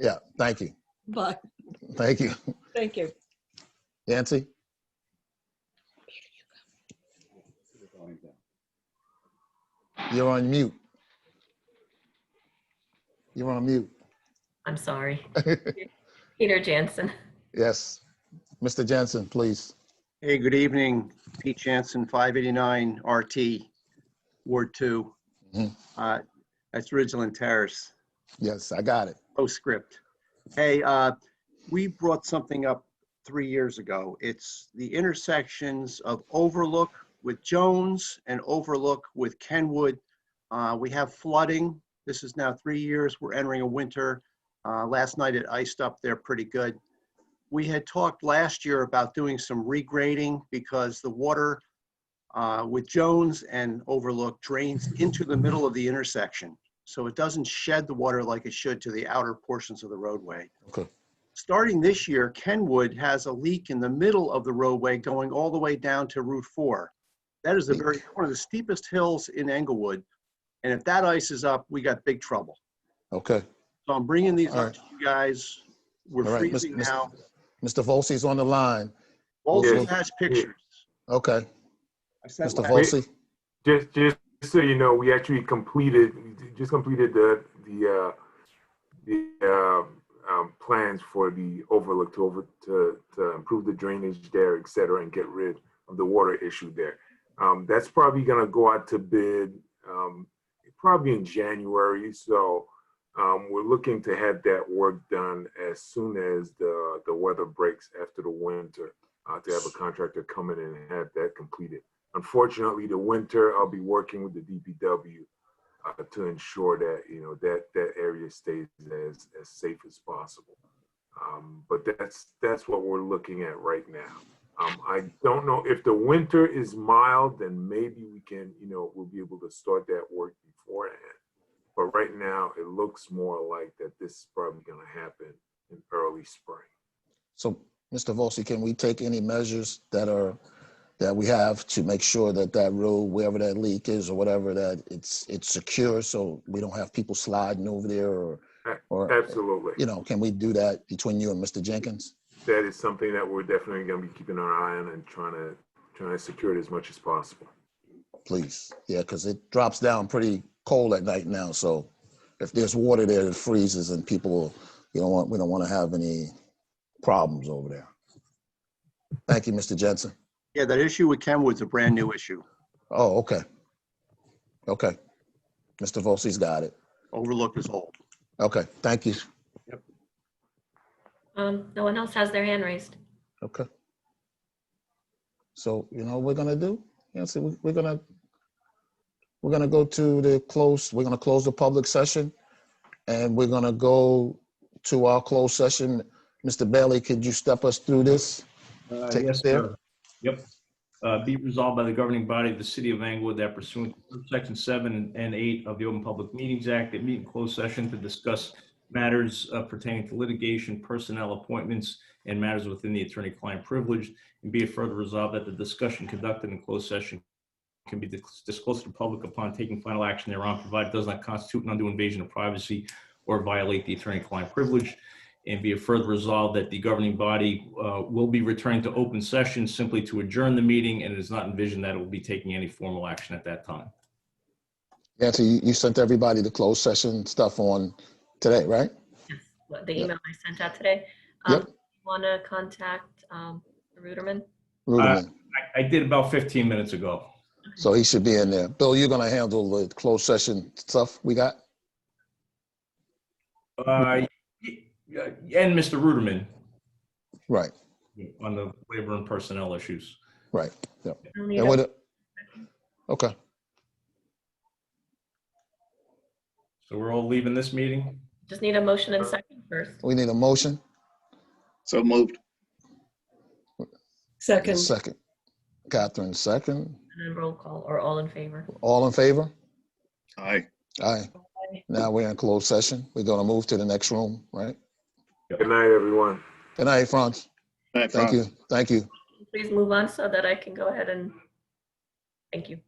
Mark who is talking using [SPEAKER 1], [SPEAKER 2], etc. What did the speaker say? [SPEAKER 1] Yeah, thank you.
[SPEAKER 2] But,
[SPEAKER 1] Thank you.
[SPEAKER 2] thank you.
[SPEAKER 1] Yancy? You're on mute. You're on mute.
[SPEAKER 3] I'm sorry. Peter Jansen.
[SPEAKER 1] Yes. Mr. Jensen, please.
[SPEAKER 4] Hey, good evening. Pete Jansen, 589 RT, Ward 2.
[SPEAKER 1] Mhm.
[SPEAKER 4] Uh, That's Ridgeland Terrace,
[SPEAKER 1] Yes, I got it.
[SPEAKER 4] postscript. Hey, uh, we brought something up three years ago. It's the intersections of Overlook with Jones and Overlook with Kenwood. Uh, We have flooding. This is now three years. We're entering a winter. Uh, Last night it iced up there pretty good. We had talked last year about doing some regrading because the water uh, with Jones and Overlook drains into the middle of the intersection. So it doesn't shed the water like it should to the outer portions of the roadway.
[SPEAKER 1] Okay.
[SPEAKER 4] Starting this year, Kenwood has a leak in the middle of the roadway going all the way down to Route 4. That is the very, one of the steepest hills in Englewood. And if that ice is up, we got big trouble.
[SPEAKER 1] Okay.
[SPEAKER 4] So I'm bringing these
[SPEAKER 1] All
[SPEAKER 4] up
[SPEAKER 1] right.
[SPEAKER 4] to you guys. We're
[SPEAKER 1] All right, Mr.
[SPEAKER 4] freezing now.
[SPEAKER 1] Mr. Volsi's on the line.
[SPEAKER 4] Also has pictures.
[SPEAKER 1] Okay.
[SPEAKER 4] I sent
[SPEAKER 1] Mr.
[SPEAKER 4] last-
[SPEAKER 1] Volsi?
[SPEAKER 5] Just, just so you know, we actually completed, just completed the, the, uh, the, uh, um, plans for the overlook to over, to, to improve the drainage there, et cetera, and get rid of the water issue there. Um, that's probably gonna go out to bid, um, probably in January, so, um, we're looking to have that work done as soon as the, the weather breaks after the winter, uh, to have a contractor come in and have that completed. Unfortunately, the winter, I'll be working with the DPW uh, to ensure that, you know, that, that area stays as, as safe as possible. Um, But that's, that's what we're looking at right now. Um, I don't know, if the winter is mild, then maybe we can, you know, we'll be able to start that work beforehand. But right now, it looks more like that this is probably gonna happen in early spring.
[SPEAKER 1] So, Mr. Volsi, can we take any measures that are, that we have to make sure that that road, wherever that leak is or whatever, that it's, it's secure so we don't have people sliding over there or, or,
[SPEAKER 5] Absolutely.
[SPEAKER 1] you know, can we do that between you and Mr. Jenkins?
[SPEAKER 5] That is something that we're definitely gonna be keeping our eye on and trying to, trying to secure it as much as possible.
[SPEAKER 1] Please, yeah, because it drops down pretty cold at night now, so if there's water there, it freezes and people, you don't want, we don't want to have any problems over there. Thank you, Mr. Jensen.
[SPEAKER 4] Yeah, that issue with Kenwood's a brand new issue.
[SPEAKER 1] Oh, okay. Okay. Mr. Volsi's got it.
[SPEAKER 4] Overlook is old.
[SPEAKER 1] Okay, thank you.
[SPEAKER 3] Um, No one else has their hand raised.
[SPEAKER 1] Okay. So, you know, what we're gonna do, you know, see, we- we're gonna, we're gonna go to the close, we're gonna close the public session. And we're gonna go to our closed session. Mr. Bailey, could you step us through this?
[SPEAKER 6] Uh,
[SPEAKER 1] Take us
[SPEAKER 6] Yes,
[SPEAKER 1] there.
[SPEAKER 6] sir. Yep. Uh, Be resolved by the governing body of the city of Anglewood that pursuant to section seven and eight of the Open Public Meetings Act, that meet in closed session to discuss matters uh, pertaining to litigation, personnel appointments, and matters within the attorney-client privilege. And be it further resolved that the discussion conducted in closed session can be dis- disclosed to the public upon taking final action thereon, provided it does not constitute an undue invasion of privacy or violate the attorney-client privilege. And be it further resolved that the governing body uh, will be returning to open session simply to adjourn the meeting, and it is not envisioned that it will be taking any formal action at that time.
[SPEAKER 1] Nancy, you, you sent everybody the closed session stuff on today, right?
[SPEAKER 3] What, The
[SPEAKER 1] Yep.
[SPEAKER 3] email I sent out today.
[SPEAKER 1] Yep.
[SPEAKER 3] Want to contact um, Ruderman?
[SPEAKER 6] Uh,
[SPEAKER 1] Ruderman.
[SPEAKER 6] I, I did about 15 minutes ago.
[SPEAKER 1] So he should be in there. Bill, you're gonna handle the closed session stuff we got?
[SPEAKER 6] Uh, y- y- And Mr. Ruderman
[SPEAKER 1] Right,
[SPEAKER 6] on the labor and personnel issues.
[SPEAKER 1] right.
[SPEAKER 3] I don't need
[SPEAKER 1] And
[SPEAKER 3] a-
[SPEAKER 1] what, okay,
[SPEAKER 6] So we're all leaving this meeting?
[SPEAKER 3] Just need a motion and second first.
[SPEAKER 1] we need a motion,
[SPEAKER 7] So moved.
[SPEAKER 1] and a
[SPEAKER 2] Second,
[SPEAKER 1] second. Catherine, second.
[SPEAKER 3] And then roll call, or all in favor.
[SPEAKER 1] All in favor?
[SPEAKER 7] Aye.
[SPEAKER 1] Aye. Now we're in closed session. We're gonna move to the next room, right?
[SPEAKER 5] Good night, everyone.
[SPEAKER 1] Good night, Franz.
[SPEAKER 7] Aye,
[SPEAKER 1] Thank
[SPEAKER 7] Franz.
[SPEAKER 1] you, thank you.
[SPEAKER 3] Please move on so that I can go ahead and, thank you.